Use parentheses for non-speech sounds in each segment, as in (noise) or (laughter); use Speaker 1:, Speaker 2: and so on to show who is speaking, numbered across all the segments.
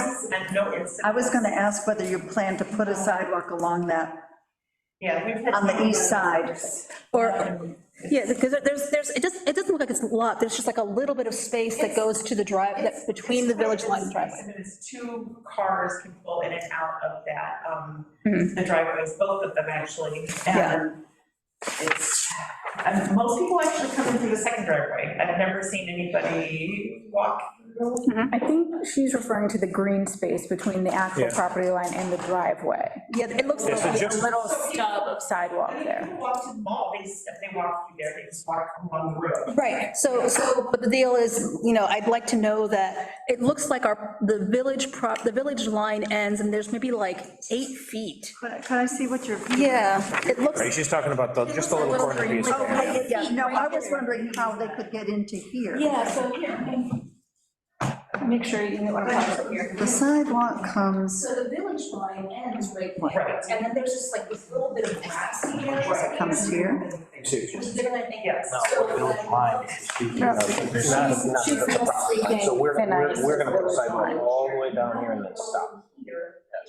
Speaker 1: meant no incident.
Speaker 2: I was gonna ask whether you plan to put a sidewalk along that,
Speaker 1: Yeah, we've had. Um,
Speaker 2: on the east side.
Speaker 3: Or, yeah, because there's, there's, it doesn't, it doesn't look like it's a lot, there's just like a little bit of space that goes to the drive, that's between the village line and driveway.
Speaker 1: It's two cars can pull in and out of that, um, the driveways, both of them actually.
Speaker 3: Yeah.
Speaker 1: And it's, and most people actually come in through the second driveway. I've never seen anybody walk. through.
Speaker 4: I think she's referring to the green space between the actual
Speaker 5: Yeah.
Speaker 4: property line and the driveway.
Speaker 3: Yeah, it looks,
Speaker 5: Yeah, so
Speaker 3: like-
Speaker 4: A
Speaker 5: just-
Speaker 4: little stub of sidewalk
Speaker 1: I mean,
Speaker 4: there.
Speaker 1: people walk to the mall, they, s- they walk through there, they just walk along the road.
Speaker 3: right, so, so, but the deal is, you know, I'd like to know that, it looks like our, the village prop, the village line ends, and there's maybe like eight feet.
Speaker 2: Could I- could I see what you're?
Speaker 3: Yeah, it looks,
Speaker 5: Right, she's talking about the, just the
Speaker 3: looks
Speaker 5: little
Speaker 3: like
Speaker 5: corner
Speaker 3: little
Speaker 5: piece.
Speaker 3: green
Speaker 5: there.
Speaker 3: little-
Speaker 2: Yeah, no, Oh, I was wondering how they could get into here.
Speaker 3: yeah, so here, make sure you know what I'm talking about here.
Speaker 2: The sidewalk comes,
Speaker 3: So the village line ends right
Speaker 1: Right.
Speaker 3: and then there's just like this little bit of grassy
Speaker 2: it comes here.
Speaker 3: which is gonna make
Speaker 1: Yes.
Speaker 6: Not what village line is speaking of. It's not- it's not
Speaker 4: she's
Speaker 6: the property line. So we're,
Speaker 4: thinking
Speaker 6: we're, we're gonna put a
Speaker 4: village line.
Speaker 6: sidewalk all the way down here and then stop.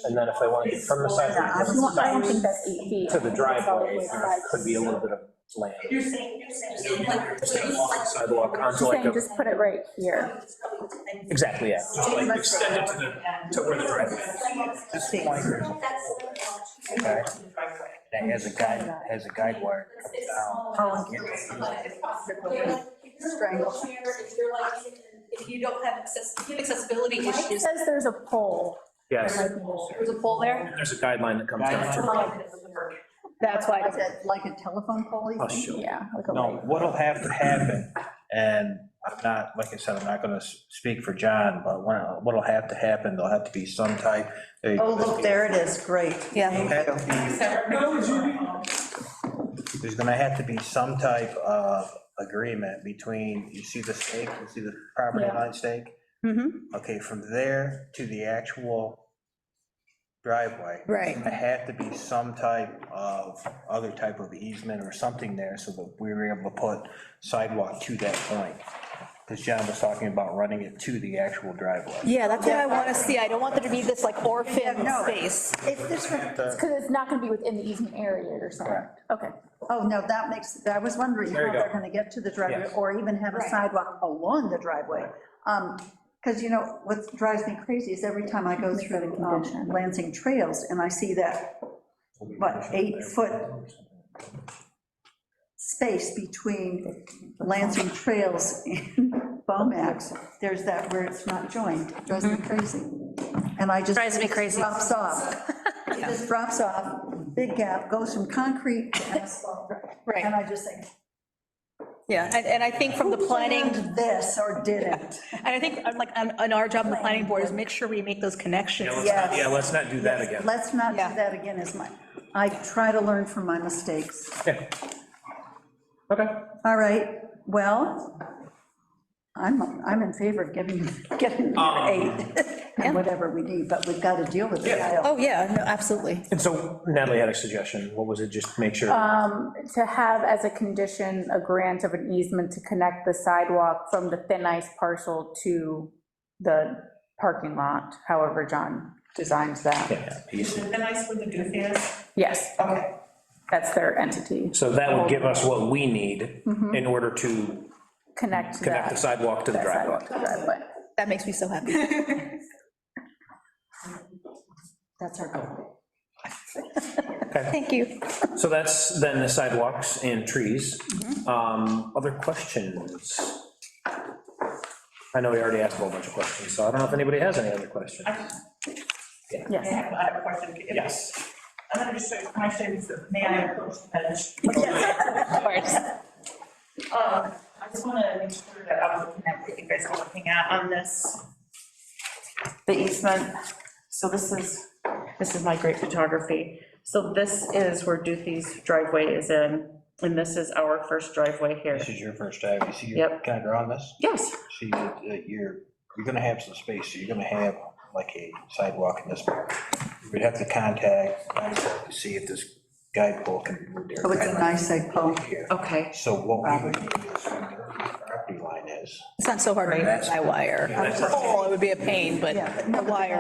Speaker 6: And then if they want to get from the
Speaker 2: Yeah, I was-
Speaker 4: I don't
Speaker 6: sidewalk
Speaker 4: think that's eight feet.
Speaker 6: to the driveway,
Speaker 4: It's all the
Speaker 6: there
Speaker 4: way
Speaker 6: could be a little bit of land.
Speaker 1: You're saying, you're saying.
Speaker 6: Just gonna walk the Sidewalk onto
Speaker 4: She's
Speaker 6: like
Speaker 4: saying
Speaker 6: a.
Speaker 4: just put it right here.
Speaker 6: Exactly, yeah. Just like extend it to
Speaker 1: the,
Speaker 6: to where the driveway
Speaker 2: This
Speaker 6: the point. Okay. That has a guide, has a guide wire. down.
Speaker 2: Oh, strangle.
Speaker 3: If you don't have access, if you have accessibility
Speaker 4: Mike
Speaker 3: issues,
Speaker 4: says there's a pole.
Speaker 5: Yes,
Speaker 3: there's a pole there.
Speaker 5: there's a guideline that comes down to.
Speaker 4: That's why, I
Speaker 2: Is
Speaker 4: don't-
Speaker 2: it like a telephone pole? you
Speaker 6: Oh,
Speaker 2: think?
Speaker 6: sure.
Speaker 4: yeah. like a
Speaker 6: No,
Speaker 4: light.
Speaker 6: what'll have to happen, and I'm not, like I said, I'm not gonna s- speak for John, but when- what'll have to happen, there'll have to be some type. they-
Speaker 2: Oh, look, there it is, great.
Speaker 3: Yeah.
Speaker 6: There's gonna have to be some type of agreement between, you see the stake, you see the property
Speaker 4: Yeah.
Speaker 6: line stake?
Speaker 3: Mhm.
Speaker 6: Okay, from there to the actual driveway.
Speaker 3: Right.
Speaker 6: There had to be some type of, other type of easement or something there so that we were able to put sidewalk to that point. Because John was talking about running it to the actual driveway.
Speaker 3: Yeah, that's what I want to see. I don't want there to be this like orphan
Speaker 2: no.
Speaker 3: space.
Speaker 2: If this were,
Speaker 6: The-
Speaker 4: Because it's not gonna be within the easement area, you're saying.
Speaker 6: Correct.
Speaker 4: Okay.
Speaker 2: oh, no, that makes, I was wondering
Speaker 6: There
Speaker 2: how
Speaker 6: you
Speaker 2: they're
Speaker 6: go.
Speaker 2: gonna get to the driveway,
Speaker 6: Yes.
Speaker 2: or even have a
Speaker 3: Right.
Speaker 2: sidewalk along the driveway. Because, Um, you know, what drives me crazy is every time I go through um, Lansing Trails, and I see that, what, eight-foot space between Lansing Trails and (laughs) Bomax, there's that where it's not joined, It drives me crazy. And I just.
Speaker 3: Mm-hmm. Drives me crazy.
Speaker 2: Drops off. It just drops off, big gap, goes from concrete to asphalt.
Speaker 3: Right.
Speaker 2: And I just think,
Speaker 3: Yeah, and, and I think from the planning,
Speaker 2: planned this or didn't?
Speaker 3: and I think um, like, on, on our job, on the planning board is make sure we make those connections.
Speaker 5: Let's not- Yeah, let's not do that again.
Speaker 2: Let's not do
Speaker 3: Yeah.
Speaker 2: that again, is my, I try to learn from my mistakes.
Speaker 5: Okay. Okay.
Speaker 2: All right, well, I'm, I'm in favor of giving, (laughs) getting eight, (laughs) and whatever we need, but we've got to deal with it.
Speaker 3: Oh, yeah, no, absolutely.
Speaker 5: And so Natalie had a suggestion, what was it, just make sure?
Speaker 4: To have as a condition a grant of an easement to connect the sidewalk from the thin ice parcel to the parking lot, however John designs that.
Speaker 5: Yeah,
Speaker 1: Is
Speaker 5: piece.
Speaker 1: it the nice where the goof is?
Speaker 4: Yes,
Speaker 1: Okay.
Speaker 4: that's their entity.
Speaker 5: So that would give us what we need in order to
Speaker 4: Connect
Speaker 5: connect the
Speaker 4: that
Speaker 5: sidewalk to the
Speaker 4: Mm-hmm. that
Speaker 5: driveway.
Speaker 4: sidewalk to the driveway.
Speaker 3: That makes me so (laughs) happy.
Speaker 2: That's our goal.
Speaker 3: (laughs) Thank you.
Speaker 5: So that's then the sidewalks and trees.
Speaker 4: Mm-hmm.
Speaker 5: Um, Other questions? I know we already asked a whole bunch of questions, so I don't know if anybody has any other questions.
Speaker 1: I have I have a question.
Speaker 5: Yes.
Speaker 1: I'm gonna just show you my shades of, may I approach the bench?
Speaker 3: Of course.
Speaker 1: Um, I just want to make sure that I'm looking at what you guys are looking at on this. The easement, so this is, this is my great photography. So this is where Duthie's driveway is in, and this is our first driveway here.
Speaker 6: This is your first drive, you see, you're
Speaker 1: Yep.
Speaker 6: kind of drawing this?
Speaker 1: Yes,
Speaker 6: See, uh, you're, you're gonna have some space, so you're gonna have like a sidewalk in this part. You'd have to contact Geico to see if this guide pole can be moved there.
Speaker 2: Oh, it's a nice egg pole.
Speaker 6: Here.
Speaker 1: okay.
Speaker 6: So what we would do is from where the property line is,
Speaker 3: It's not so hard to buy wire. A pole, Oh, it would be a pain, but
Speaker 2: Yeah, but
Speaker 3: a wire.